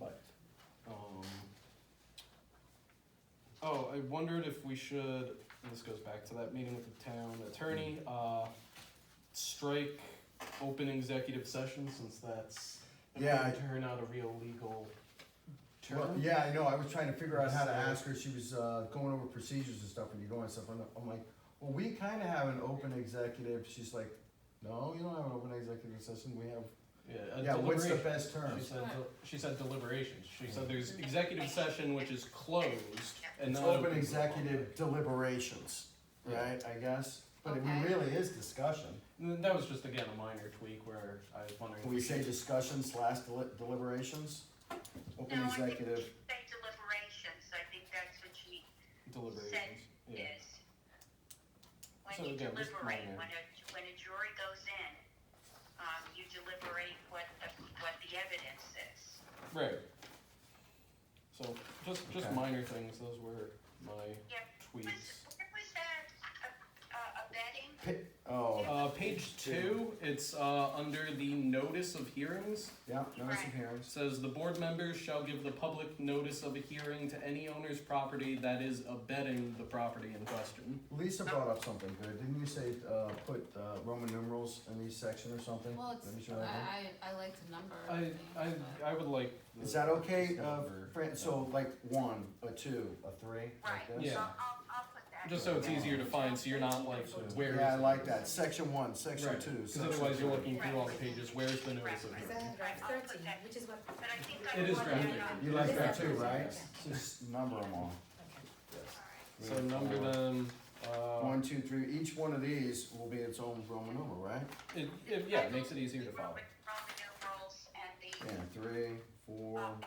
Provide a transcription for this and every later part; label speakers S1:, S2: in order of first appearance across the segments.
S1: uh, um, oh, I wondered if we should, and this goes back to that meeting with the town attorney,
S2: Mm-hmm.
S1: uh, strike open executive session since that's. I mean,
S2: Yeah, I-
S1: Turn out a real legal
S2: Well,
S1: term.
S2: yeah, I know, I was trying to figure out how to
S1: So-
S2: ask her, she was, uh, going over procedures and stuff, and you're going stuff, I'm, I'm like, well, we kinda have an open executive, she's like, no, you don't have an open executive session, we have,
S1: Yeah, a
S2: yeah, what's the
S1: deliberation.
S2: best term?
S1: She said, del- she said deliberations, she said there's executive session which is closed and
S2: It's
S1: not.
S2: open
S1: to the public.
S2: executive deliberations, right, I guess, but it
S3: Okay.
S2: really is discussion,
S1: And then that was just again a minor tweak where I was wondering.
S2: can
S1: if
S2: we say
S1: should-
S2: discussion slash deli- deliberations? Open
S3: No, I think we
S2: executive,
S3: should say deliberations, I think that's what she
S1: Deliberations, yeah.
S3: is. When
S1: So
S3: you
S1: again, just
S3: deliberate,
S1: minor.
S3: when a, when a jury goes in, um, you deliberate what the, what the evidence is.
S1: Right. So just just
S2: Okay.
S1: minor things. Those were my
S3: Yep.
S1: tweets.
S3: Was, where was that, uh, uh, abetting?
S2: oh,
S1: Uh, page two. It's uh, under the notice of hearings.
S2: yeah, notice of
S3: Right.
S1: It
S2: hearings,
S1: says the board members shall give the public notice of a hearing to any owner's property that is abetting the property in question.
S2: Lisa brought up something good, didn't you say, uh, put, uh, Roman numerals in each section or something?
S4: Well,
S2: Let me
S4: it's, uh,
S2: show that.
S4: I, I, I like to number
S1: I
S4: things,
S1: I,
S4: but-
S1: I would like.
S2: Is that okay, uh,
S1: number.
S2: Fran, so like one, a two, a three,
S3: Right,
S2: like this?
S3: so
S1: Yeah.
S3: I'll, I'll put that.
S1: Just so it's
S3: down.
S1: easier to find, so you're not like where.
S2: Yeah, I
S1: is it?
S2: like that, section one, section
S1: Right.
S2: two,
S1: Because
S2: section
S1: otherwise you're
S2: three.
S1: looking through all the pages. Where's the notice of
S3: Right.
S5: Is
S1: hearing?
S5: that draft
S3: I'll put
S5: thirteen,
S3: that-
S5: which is what,
S3: But I think I
S1: It is
S3: would want
S1: graphic.
S3: that on.
S2: You like that too,
S5: Yeah.
S2: right? Just number them all.
S1: So number them. Uh,
S2: One, two, three, each one of these will be its own Roman numeral, right?
S1: it, it, yeah, it makes it easier to follow.
S3: Roman numerals and
S2: Yeah,
S3: the
S2: three, four,
S3: um,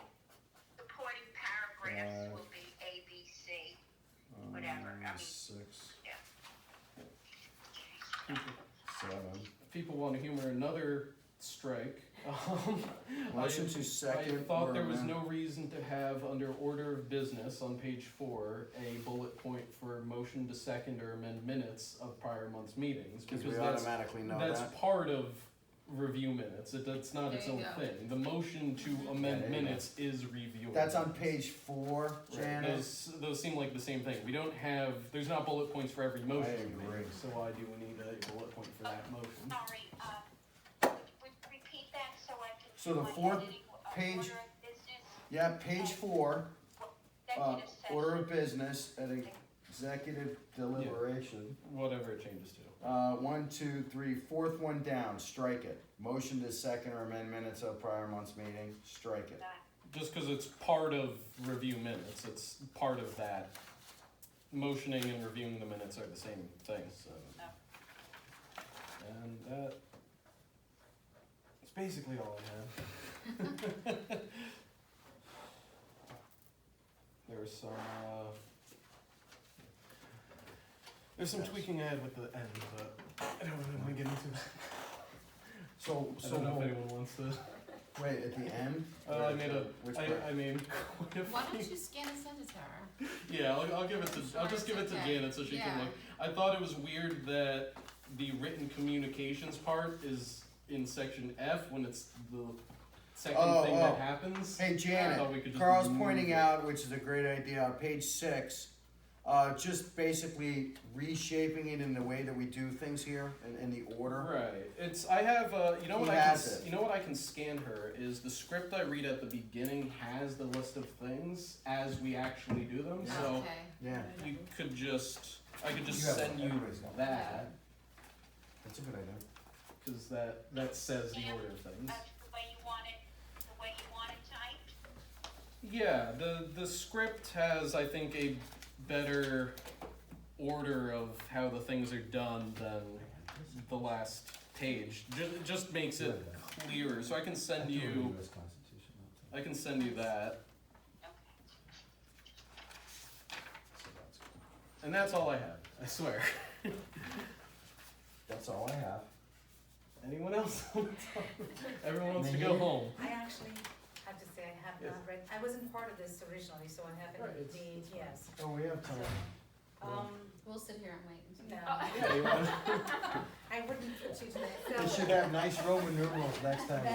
S3: supporting paragraphs will be A, B, C. whatever, I
S2: um,
S3: mean-
S2: six,
S1: People-
S2: seven.
S1: if people want to humor another strike. Um,
S2: Motion
S1: I-
S2: to second.
S1: I thought there was
S2: Roman.
S1: no reason to have under order of business on page four a bullet point for motion to second or amend minutes of prior month's meetings
S2: Cause
S1: because
S2: we
S1: that's
S2: automatically know
S1: that's
S2: that.
S1: part of review minutes. It, that's not its
S4: There
S1: own
S4: you go.
S1: thing. The motion to amend
S2: There you go.
S1: minutes is review.
S2: That's on page four,
S1: Right,
S2: Janice.
S1: those, those seem like the same thing. We don't have, there's not bullet points for every motion. we make,
S2: agree.
S1: So why do we need a bullet point for that motion?
S3: Sorry, um, would you repeat that so I can.
S2: So the
S3: my
S2: fourth
S3: editing, uh,
S2: page-
S3: order of business,
S2: Yeah, page four. Uh,
S3: executive session.
S2: order of business at executive deliberation.
S1: Whatever it changes to.
S2: Uh, one, two, three, fourth one down, strike it. Motion to second or amend minutes of prior month's meeting, strike it.
S3: Uh,
S1: Just because it's part of review minutes, it's part of that. Motioning and reviewing the minutes are the same thing, so.
S4: Oh.
S1: And that, it's basically all I have. There was some, uh, there's some tweaking I had with the end, but I don't really wanna get into that.
S2: So,
S1: I
S2: so,
S1: don't know if
S2: we'll-
S1: anyone wants to.
S2: wait, at the end?
S1: Uh, I made a,
S2: Which
S1: I,
S2: part?
S1: I made quite a
S4: Why don't
S1: few-
S4: you scan and send it to her?
S1: Yeah, I'll, I'll give it to, I'll just give it to
S4: Okay.
S1: Janet so she can
S4: Yeah.
S1: look. I thought it was weird that the written communications part is in section F when it's the second
S2: Oh,
S1: thing that
S2: oh.
S1: happens.
S2: Hey
S1: I
S2: Janet,
S1: thought we could just
S2: Carl's
S1: move
S2: pointing
S1: it.
S2: out, which is a great idea, on page six, uh, just basically reshaping it in the way that we do things here and in the order.
S1: Right. It's I have uh, you know
S2: He
S1: what I can,
S2: has
S1: s-
S2: it.
S1: you know what I can scan her is the script I read at the beginning has the list of things as we actually do them. So
S4: Okay.
S2: Yeah,
S1: you could just I could just
S2: You have
S1: send you
S2: everybody's got it.
S1: that
S2: that's a good idea.
S1: because that that says the order of things.
S3: Uh, the way you want it, the way you want it typed,
S1: Yeah, the the script has I think a better order of how the things are done than the last page. Ju- It just makes it clearer. So I can send you I can send you that.
S3: okay.
S1: And that's all I have. I swear.
S2: That's all I have.
S1: Anyone else? wanna talk? Everyone wants to go
S2: Me?
S1: home.
S5: I actually have to say, I have
S1: Yes.
S5: not read, I wasn't part of this originally, so I
S1: Right,
S5: haven't
S1: it's-
S5: indeed,
S1: it's fine.
S5: yes.
S2: Oh, we have
S5: So,
S2: time.
S5: Um,
S4: We'll sit here and wait. and see.
S5: no,
S1: Yeah, you wanna-
S5: I wouldn't put you to that.
S2: We should have nice Roman numerals next time.